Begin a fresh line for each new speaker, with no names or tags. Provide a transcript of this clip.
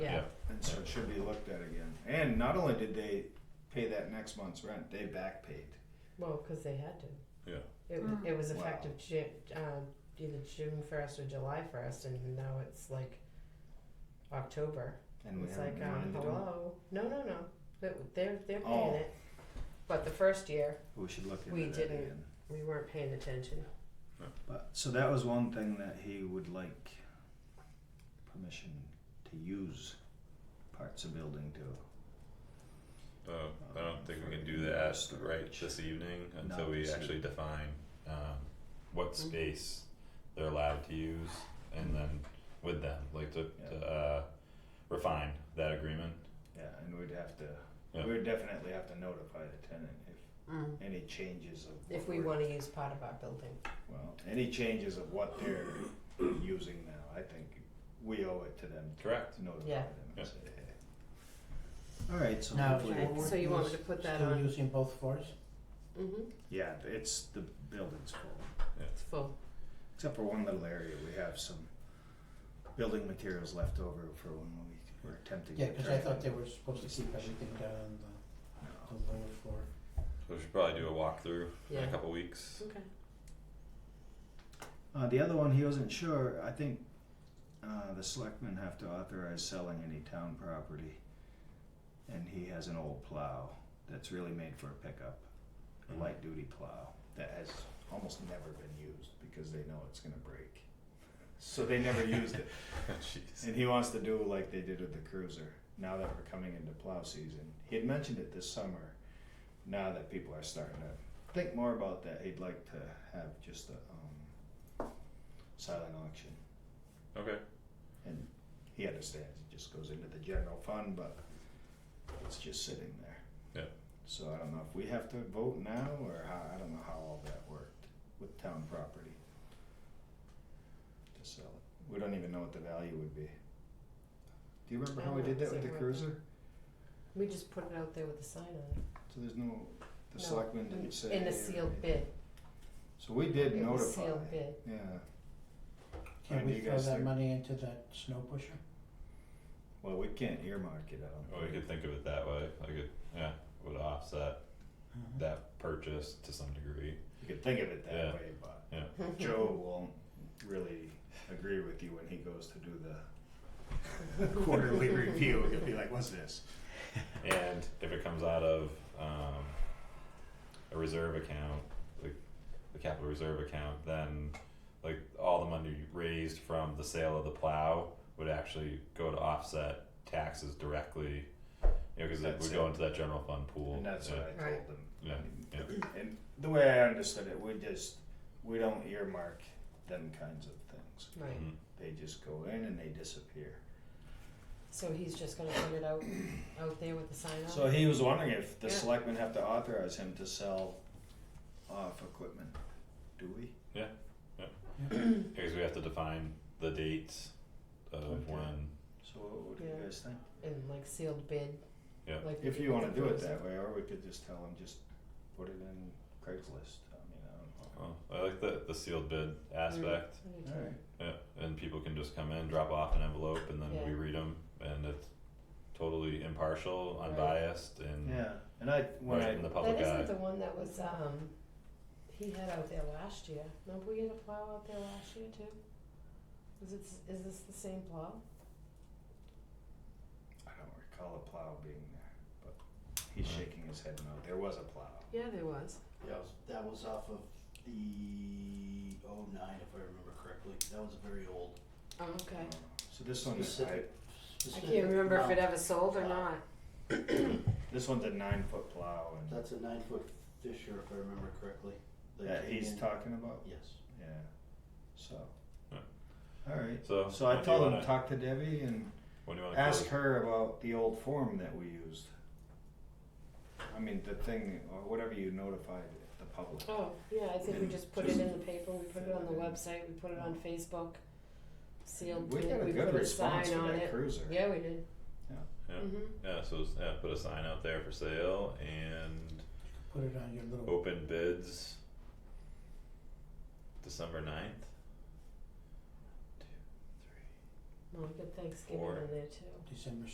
so it should be looked at again. And not only did they pay that next month's rent, they back paid.
Well, because they had to.
Yeah.
It,
Mm.
it was
Wow.
effective Ju- um, either June first or July first, and now it's like October.
And we
it's
haven't
like,
been
um,
wanting to do it.
hello, no, no, no, But they're they're paying
Oh.
it. But the first year
We should look
We
into that
didn't.
again.
we weren't paying attention.
But, so that was one thing that he would like permission to use parts of building to.
Uh, I don't think we can do that right this evening until
Not
we
this
actually define, um, what space they're allowed to use and then with them, like to,
Yeah.
to, uh, refine that agreement.
Yeah, and we'd have to,
Yeah.
we'd definitely have to notify the tenant if
Mm.
any changes of.
If
what
we
we're-
want to use part of our building,
Well, any changes of what they're using now, I think we owe it to them
Correct.
to notify
Yeah.
them
Yeah.
and say, hey. Alright, so
Now,
hopefully-
Okay,
we're
so you want me
us-
to put that
still
on?
using both floors?
mm-hmm.
yeah, it's, the building's full.
it's full.
Except for one little area, we have some building materials left over for when we were attempting to.
Yeah, cause I
turn
thought
it
they
in.
were supposed to keep everything down on the,
No.
the lower floor.
So we should probably do a walkthrough in a
Yeah.
couple weeks.
Okay.
Uh, the other one, he wasn't sure, I think, uh, the selectmen have to authorize selling any town property. And he has an old plow that's really made for a pickup, a light duty plow, that has almost never been used because they know it's gonna break. So they never used it.
Jeez.
And he wants to do like they did with the cruiser. Now that we're coming into plow season, he had mentioned it this summer. Now that people are starting to think more about that, he'd like to have just a um, silent auction.
Okay,
And he understands it just goes into the general fund, but it's just sitting there.
Yeah.
So I don't know if we have to vote now or how, I don't know how all that worked with town property to sell it. We don't even know what the value would be. Do you remember how we did that with the cruiser?
We just put it out there with a sign on
So there's no, the
No.
selectmen didn't
it
say.
in
or
a sealed
anything.
bid.
So we did
It was
notify.
sealed bid.
Yeah.
Can
Alright,
we
you
throw
guys
that
think-
money into that snow pusher?
Well, we can't earmark it, I
or
don't
Oh, we could
think.
think of it that way, like it, yeah, would offset
Mm-hmm.
that purchase to some degree.
You could think of it
Yeah.
that way, but.
Joe.
Joe won't really agree with you when he goes to do the quarterly review. He'll be like, what's this?
And if it comes out of um a reserve account, like the capital reserve account, then like all the money raised from the sale of the plow would actually go to offset taxes directly. You know, cause it
That's
would go
it.
into that general fund pool.
And that's
yeah,
what I
Right.
told him.
Yeah, yeah,
And the way I understood it, we just, we don't earmark them kinds of things.
Right.
mhm.
They just go in and they disappear.
So he's just gonna put it out out there with a sign on.
So he was wondering if the
Yeah.
selectmen have to authorize him to sell off equipment. Do we?
Yeah, cause we have to define the dates of
Okay.
when,
So what do
Yeah.
you guys think?
and like sealed bid.
Yeah.
Like we
If
did
you
with
wanna
the
do it
cruiser.
that way, or we could just tell him, just put it in Craigslist, I mean, I don't know.
oh, I like the the sealed bid aspect.
I do too.
Alright,
Yeah, and people can just come in, drop off an envelope, and then we
Yeah.
read them, and it's totally impartial,
Right.
unbiased,
Mm.
and
yeah, and I, when
right
I,
in the
That
public eye.
isn't the one that was, um, he had out there last year. Remember we had a plow out there last year too? Is it, is this the same plow?
I don't recall a plow being there, but he's
Right.
shaking his head no, there was a plow.
Yeah, there was.
That was, that was off of the oh nine, if I remember correctly. That was a very old.
Oh, okay.
So this one is, I,
Specific.
I
specific
can't remember if it
amount.
ever sold or not.
this one's a nine foot plow and
That's a nine foot Fisher, if I remember correctly. They
that
came
he's
in-
talking about,
Yes.
yeah, so.
Yeah.
Alright,
So,
so I
when do you
told him,
wanna-
talk to Debbie and
When do you want to
ask
close?
her about the old form that we used. I mean, the thing, or whatever you notified the public.
Oh, yeah, I think we just put it in the paper, we put it on the website, we put it on Facebook, sealed
We got
bid,
a
we
good
put a
response
sign
for
on
that
it.
cruiser.
Yeah, we did.
Yeah.
Mm-hmm.
Yeah, so it's- yeah, put a sign out there for sale and
Put it on your little,
open bids. December 9th?
Well, we got Thanksgiving
Four.
in there too.
December